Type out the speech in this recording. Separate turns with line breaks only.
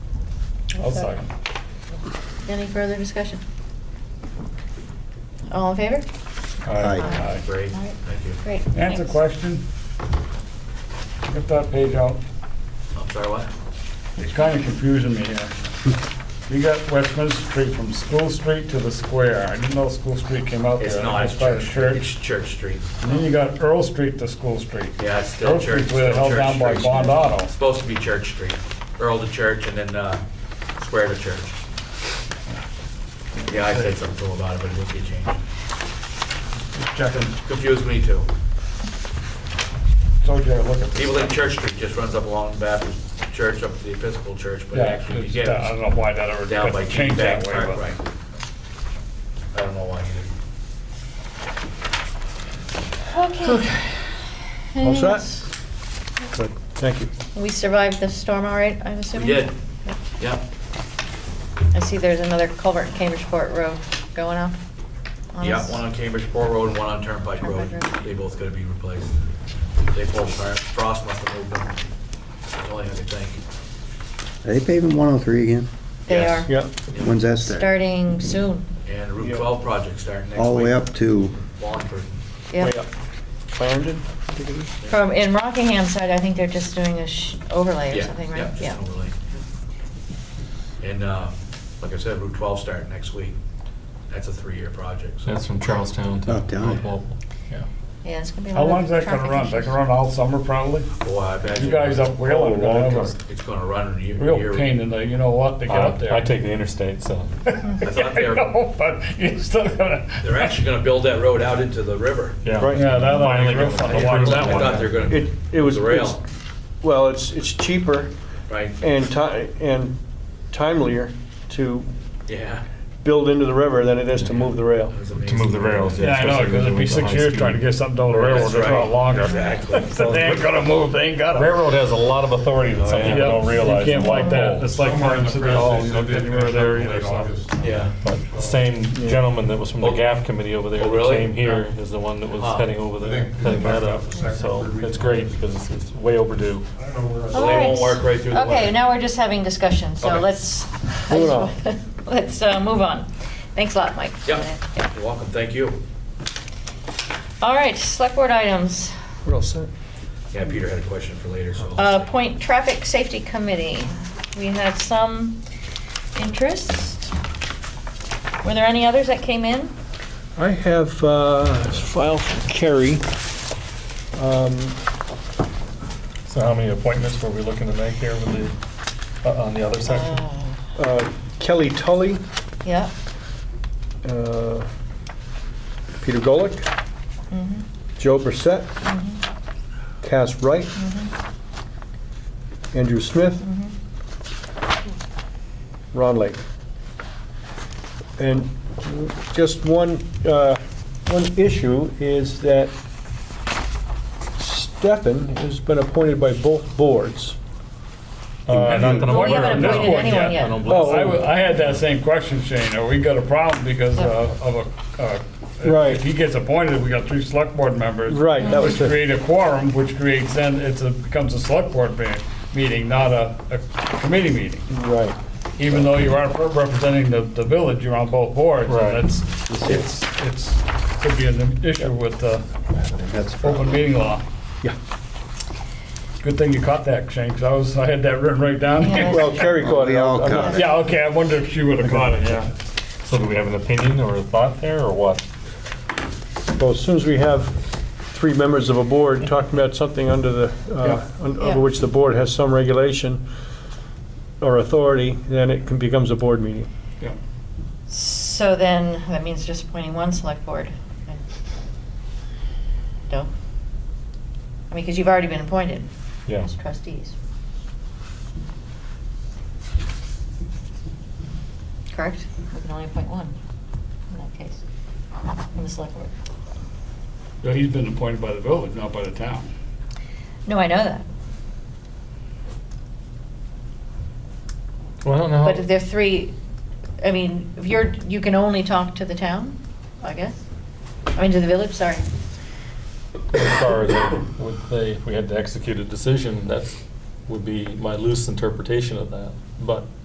I'll second.
Any further discussion? All in favor?
Aye.
Aye.
Great,
All right.
thank you.
Great.
Answer
thanks.
question. Get that page out.
I'm sorry, what?
It's kind of confusing me here. We got Westminster Street from School Street to the square. I didn't know School Street came out there.
It's not, it's
It's by the
Church, it's
church.
Church Street.
And then you got Earl Street to School Street.
Yeah, it's still
Earl
Church.
Street where
still
held
Church
down by
Street.
Bond Auto.
It's Supposed to be Church Street, Earl to Church and then uh, Square to Church. Yeah, I said something cool about it, but it would be changed.
Checking.
Confused me too.
Told you to look at this.
People think Church Street just runs up along Baptist Church, up to the Episcopal Church, but it
Yeah,
actually
it's- uh, I don't
begins
know why that ever
down by
got
Keith
changed
Bank
that way,
Park,
but.
right? I don't know why either.
Okay.
All set?
Anything else?
Good, thank you.
We survived the storm all right, I'm
We
assuming?
did, yeah.
I see there's another culvert in Cambridgeport Road going up.
Yeah, one on Cambridge Port Road and one on Turnpike Road.
Turnpike Road.
They both gotta be replaced. They both are, Frost must have moved them. That's the only thing I could think.
Are they paving 103 again?
They
Yes.
are.
Yeah,
When's that start?
Starting soon.
And
Yeah.
Route 12 project starting next week.
All the way up to,
Wallingford.
Yeah.
way up. Clarendon? I think it is.
From, in Rockingham side, I think they're just doing a sh- overlay or
Yeah,
something,
yeah,
right?
just an overlay. And, uh, like I said, Route 12 starting next week. That's a three-year project, so.
That's from Charlestown to
Up down.
North Walpole. Yeah.
Yeah, it's gonna be a lot
How
of
long's that gonna
traffic
run?
issues.
That can run all summer probably?
Boy, I imagine.
You guys up
Oh,
Whalen are gonna
long
have
time.
It's gonna run a year.
a real
year-
pain in the, you know what, to get up there.
Uh, I take the interstate, so.
Yeah,
thought
I
they were-
know, but you're still gonna.
They're actually gonna build that road out into the river.
Yeah.
Right.
Yeah, that one
Finally
was real
got
fun
it.
to watch that
I
one.
thought they were gonna.
It, it was.
The rail,
it's- Well, it's, it's cheaper
right?
and ti, and timelier to
Yeah.
build into the river than it is to move the rail.
That was
To move the
amazing.
rails,
Yeah, I know,
especially
because
when
it'd be
they went
six
to high
years
speed.
trying to get something down the railroad,
That's
it's a
right.
lot longer.
Exactly.
So They ain't gonna move, they ain't got it.
Railroad has a lot of authority that some
Yep,
people don't realize.
You can't
Like
fight that, it's like
Somewhere in the
Martin said,
press,
oh,
they
you
said
don't
they
get anywhere
finished
there
up
either,
late
so.
August.
Yeah.
Same gentleman that was from the
Oh.
GAF committee over there.
Oh,
that
really?
Came here is the one that was
Huh.
heading over
I
there,
think-
heading that up.
Second,
So
third week.
it's great because it's- it's way overdue.
I don't know where.
So they won't
All right.
work right through the winter.
Okay, now we're just having discussion, so
Okay.
let's,
Moving on.
let's uh, move on. Thanks a lot, Mike.
Yep, you're welcome, thank you.
All right, select board items.
We're all set.
Yeah, Peter had a question for later, so. I'll
Uh,
just-
Point Traffic Safety Committee, we had some interest. Were there any others that came in?
I have uh, a file from Kerry. Um,
So how many appointments were we looking to make here with the, uh, on the other section?
uh, Kelly Tully,
Yeah.
uh, Peter Golick,
mhm,
Joe Brissette,
mhm,
Cass Wright,
mhm,
Andrew Smith,
mhm.
Ron Lake. And just one, uh, one issue is that Stefan has been appointed by both boards.
Uh, not that I'm
Well, we
aware of,
haven't
no.
appointed anyone
I don't
yet.
believe
Oh,
so.
I, wa- I had that same question, Shane, are we got a problem because uh, of a, uh, if-
Right.
if he gets appointed, we got three select board members.
Right, that was
Which
the-
create a quorum, which creates, then it's a, becomes a select board me- meeting, not a, a committee meeting.
Right.
Even though you are representing the, the village, you're on both boards. and
Right.
It's, it's, it's, could be an issue with the
that's
open meeting law.
Yeah.
Good thing you caught that, Shane, because I was, I had that written right down.
Yeah.
Well, Kerry caught it.
We all
I'm not-
caught it.
Yeah, okay, I wonder if she would have caught it, yeah.
So do we have an opinion or a thought there, or what?
Well, as soon as we have three members of a board talking about something under the, uh, un-
Yeah.
over which the board has some regulation or authority, then it can- becomes a board meeting.
So then, that means just appointing one select board. No? I mean, because you've already been appointed
Yeah.
as trustees. Correct? We can only appoint one in that case, in the select board.
No, he's been appointed by the village, not by the town.
No, I know that.
Well, I don't know.
But if there are three, I mean, if you're, you can only talk to the town, I guess? I mean, to the village, sorry.
As far as uh, would they, if we had to execute a decision, that's, would be my loose interpretation of that. But